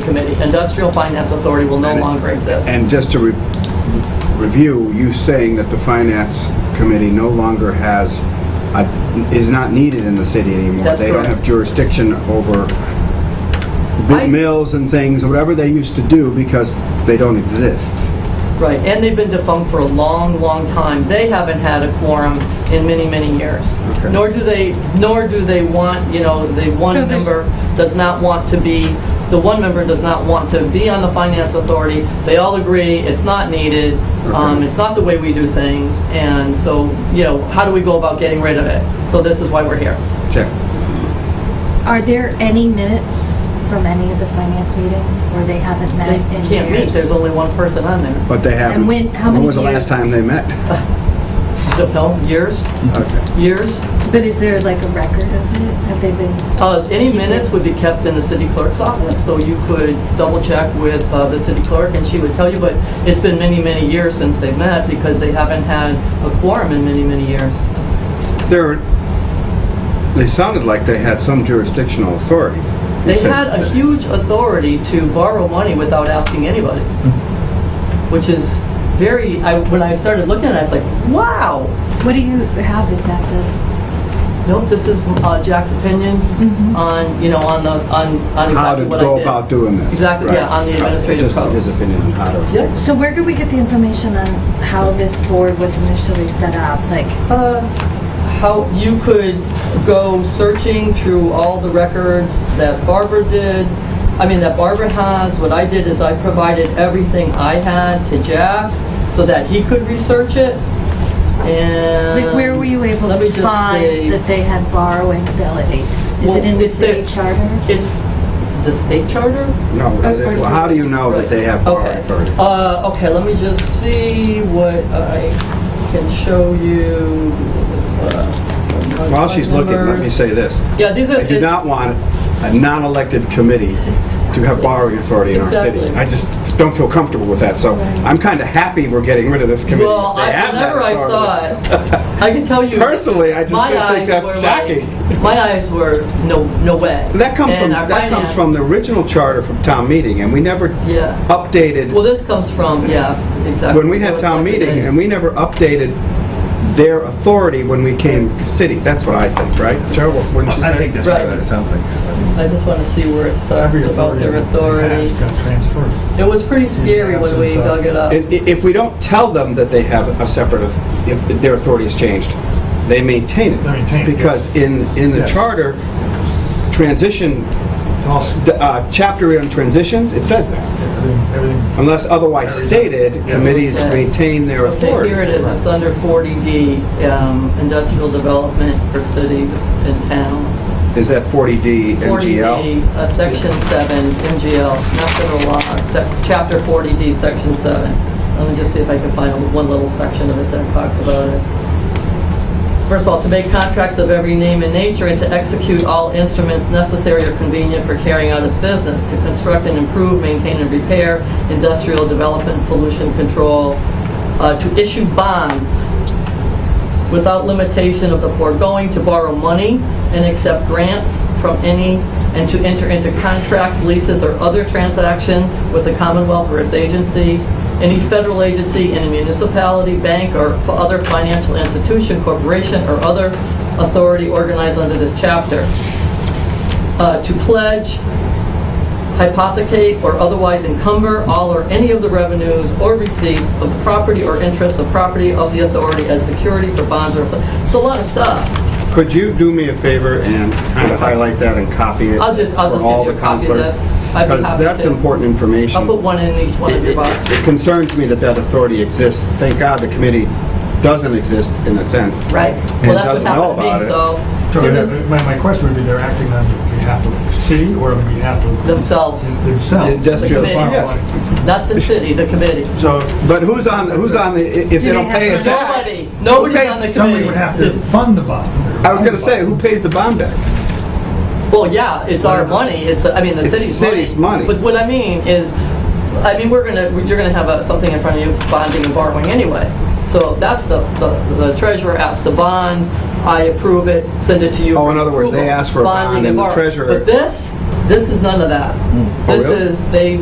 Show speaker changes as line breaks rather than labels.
Committee. Industrial Finance Authority will no longer exist.
And just to re- review, you saying that the finance committee no longer has, a- is not needed in the city anymore.
That's
They don't
correct.
have jurisdiction over big
I-
mills and things, whatever they used to do, because they don't exist.
Right, and they've been defunct for a long, long time. They haven't had a quorum in many, many years.
Okay.
Nor do they, nor do they want, you know, the one
So there's-
member does not want to be, the one member does not want to be on the Finance Authority. They all agree, it's not needed, um,
Okay.
it's not the way we do things, and so, you know, how do we go about getting rid of it? So this is why we're here.
Check.
Are there any minutes from any of the finance meetings where they haven't met
They
in years?
can't meet, there's only one person on there.
But they haven't.
And when- how many
was the last
years?
time they met?
Don't know, years,
Okay.
years.
But is there like a record of it? Have they been,
Uh, Any minutes would be kept in the city clerk's office, so you could double check with uh, the city clerk and she would tell you, but it's been many, many years since they've met because they haven't had a quorum in many, many years.
They're, they sounded like they had some jurisdictional authority. You
They
said-
had a huge authority to borrow money without asking anybody, which is very, I- when I started looking at it, I was like, wow,
what do you have, is that the?
nope, this is uh, Jack's opinion on, you know, on the, on on
How to
exactly what I did.
go about doing this.
Exactly, yeah,
right.
on the administrative
Just
code.
his opinion on how to.
Yep.
So where did we get the information on how this board was initially set up? Like,
Uh, How, you could go searching through all the records that Barbara did, I mean, that Barbara has. What I did is I provided everything I had to Jack so that he could research it, and...
like where were you able
Um, let me
to
just say-
find that they had borrowing ability? Is
Well,
it in the
it's their-
city charter?
It's the state charter?
No, is it- well, how do you know that they have power
Okay.
authority?
Uh, okay, let me just see what I can show you. uh,
While she's looking, let me say this.
Yeah, these are...
I do
it's-
not want a non-elected committee to have borrowing authority in our city.
Exactly.
I just don't feel comfortable with that, so I'm kind of happy we're getting rid of this committee.
Well,
They
I,
have that
whenever I
authority.
saw it, I can tell you.
Personally, I just
my
didn't think
eyes were
that's
like-
shocking.
My eyes were, no, no way.
That comes from,
And our
that comes
finance-
from the original charter from town meeting, and we never
Yeah.
updated
Well, this comes from, yeah, exactly.
when we
So
had
it's
town
like it
meeting,
is.
and we never updated their authority when we came city. That's what I think, right? Joe, what- wouldn't you say?
I think that's
Right.
what it sounds like.
I just want to see where it
Every
starts about their authority.
Got transferred.
It was pretty scary when we
absence of-
dug it up.
I- i- If we don't tell them that they have a separate, auth- if their authority has changed, they maintain it.
They maintain it, yes.
Because in, in the
Yes.
charter, transition,
It's all, s-
the, uh, chapter on transitions, it says that.
everything, everything.
Unless otherwise stated,
Yeah.
committees
Okay.
maintain their
Okay,
authority.
here it is, it's under 40D, um, industrial development for cities and towns.
Is that 40D
40D,
NGL?
uh, Section 7, MGL, not federal law, sec- Chapter 40D, Section 7. Let me just see if I can find one little section of it that talks about it. First of all, to make contracts of every name and nature and to execute all instruments necessary or convenient for carrying out its business, to construct and improve, maintain and repair, industrial development, pollution control, uh, to issue bonds without limitation of the foregoing, to borrow money and accept grants from any, and to enter into contracts, leases, or other transaction with the Commonwealth or its agency, any federal agency, any municipality, bank, or f- other financial institution, corporation, or other authority organized under this chapter, Uh, to pledge, hypothecate, or otherwise encumber all or any of the revenues or receipts of the property or interest of property of the authority as security for bonds or, it's a lot of stuff.
Could you do me a favor and kind of highlight that and copy it?
I'll just- I'll just
For all
give you
the
a copy of
counselors?
this. I'd be
Because
happy
that's
to.
important information.
I'll put one in each one of your
It-
boxes.
It it concerns me that that authority exists. Thank God the committee doesn't exist in a sense.
Right.
And
Well, that's
doesn't
what
know
happened to
about
me,
it.
so.
So
soon
they're-
as
My, my question would be, they're acting on behalf of the city or on behalf of
Themselves,
themselves?
Industrial-
They borrow
yes.
money.
not the city, the committee.
So
But who's on, who's on, the i- if they
they
don't
have
pay it
money?
back?
Nobody, nobody's
pays-
on the committee.
somebody would have to fund the bond.
I was going to say, who pays the bond back?
Well, yeah, it's our money, it's, I mean, the
It's
city's money.
city's money.
But what I mean is, I mean, we're gonna, you're gonna have a- something in front of you, bonding and borrowing anyway. So that's the, the- the treasurer asks to bond, I approve it, send it to you.
Oh,
for
in other words, they
approval.
ask for a bond
Bonding
and the
borrowing.
treasurer- Hmm. Oh,
But this,
This is none of that.
Oh,
This
really?
is, they